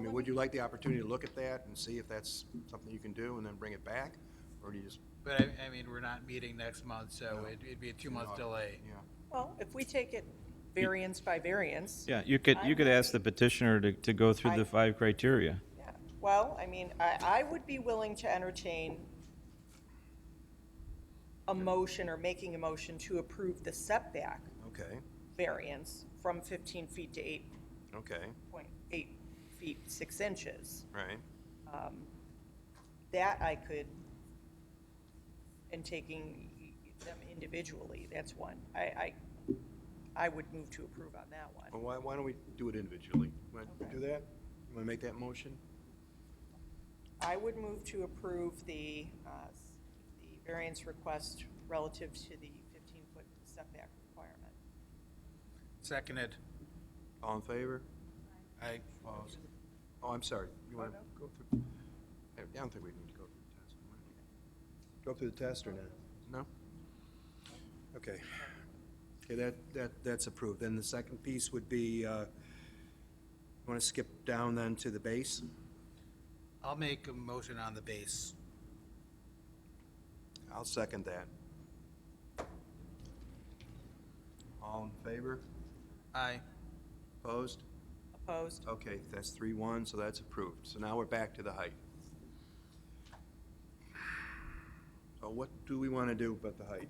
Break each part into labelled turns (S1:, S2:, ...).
S1: mean, would you like the opportunity to look at that and see if that's something you can do and then bring it back? Or do you just?
S2: But I, I mean, we're not meeting next month, so
S1: No.
S2: it'd, it'd be a two-month delay.
S1: Yeah.
S3: Well, if we take it variance by variance,
S4: Yeah, you could, you could ask the petitioner to, to go through
S3: I-
S4: the five criteria.
S3: yeah. Well, I mean, I, I would be willing to entertain a motion or making a motion to approve the setback
S1: Okay,
S3: variance from fifteen feet to eight
S1: okay,
S3: point eight feet, six inches.
S1: right.
S3: That I could, and taking them individually, that's one. I, I, I would move to approve on that one.
S1: Well, why, why don't we do it individually? Want to
S3: Okay.
S1: do that? You want to make that motion?
S3: I would move to approve the, uh, s- the variance request relative to the 15-foot setback requirement.
S2: Seconded.
S1: All in favor?
S2: I,
S1: Opposed? Oh, I'm sorry. You want to go through? I I don't think we need to go through the test. Go through the test or not? No? Okay. Okay, that, that, that's approved. Then the second piece would be, uh, want to skip down then to the base?
S2: I'll make a motion on the base.
S1: I'll second that. All in favor?
S2: Aye.
S1: Opposed?
S3: Opposed?
S1: Okay, that's three one, so that's approved. So now we're back to the height. So what do we want to do about the height?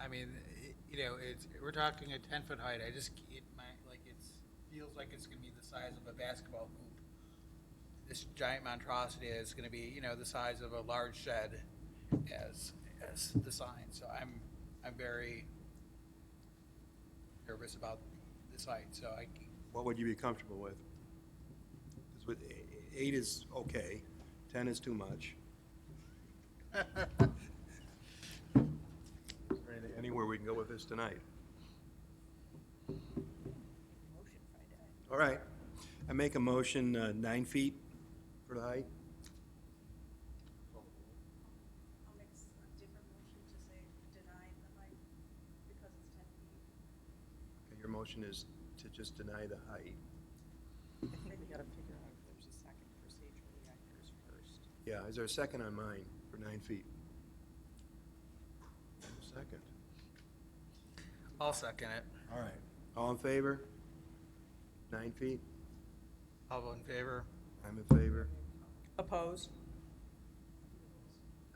S2: I mean, it- you know, it's, we're talking a ten-foot height, I just, it, my, like, it's, feels like it's gonna be the size of a basketball hoop. This giant monstrosity is gonna be, you know, the size of a large shed as, as the sign, so I'm, I'm very nervous about this height, so I,
S1: What would you be comfortable with? 'Cause with e- eight is okay, ten is too much. Is there anything- Anywhere we can go with this tonight.
S3: Motion Friday.
S1: All right. I make a motion, uh, nine feet for the height.
S5: I'll make s- a different motion to say deny the height because it's ten feet.
S1: Okay, Your motion is to just deny the height.
S3: I think we gotta figure out if there's a second procedurally on yours first.
S1: Yeah, is there a second on mine for nine feet? Second.
S2: I'll second it.
S1: All right. All in favor? Nine feet?
S2: All vote in favor?
S1: I'm in favor.
S3: Opposed?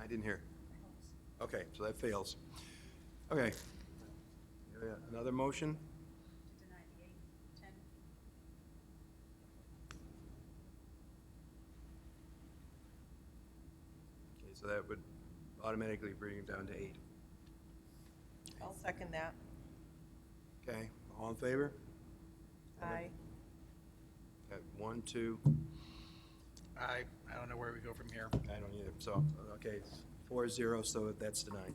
S1: I didn't hear. Okay, so that fails. Okay. Yeah, Another motion?
S5: To deny the eight, ten,
S1: Okay, so that would automatically bring it down to eight.
S3: I'll second that.
S1: Okay, all in favor?
S3: Aye.
S1: Got one, two,
S2: I, I don't know where we go from here.
S1: I don't either, so, okay, it's four zero, so that's denied.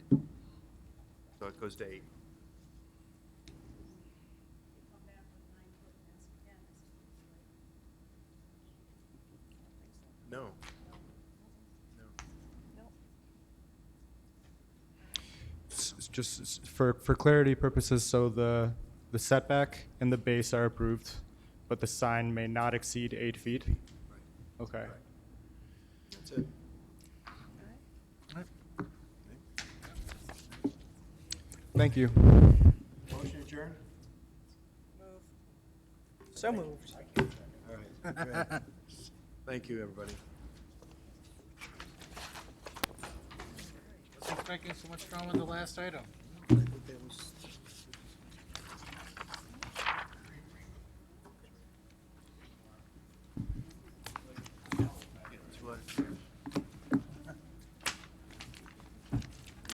S1: So it goes to eight.
S5: you come back with nine foot and ask again, it's ten feet, right?
S1: No. No.
S3: Nope.
S6: S- s- Just s- for, for clarity purposes, so the, the setback and the base are approved, but the sign may not exceed eight feet?
S1: Right.
S6: Okay.
S1: Right. That's it.
S6: Thank you.
S1: Motion adjourned?
S3: Move. So moved.
S1: All right. great. Thank you, everybody.
S2: Let's not making so much drama on the last item.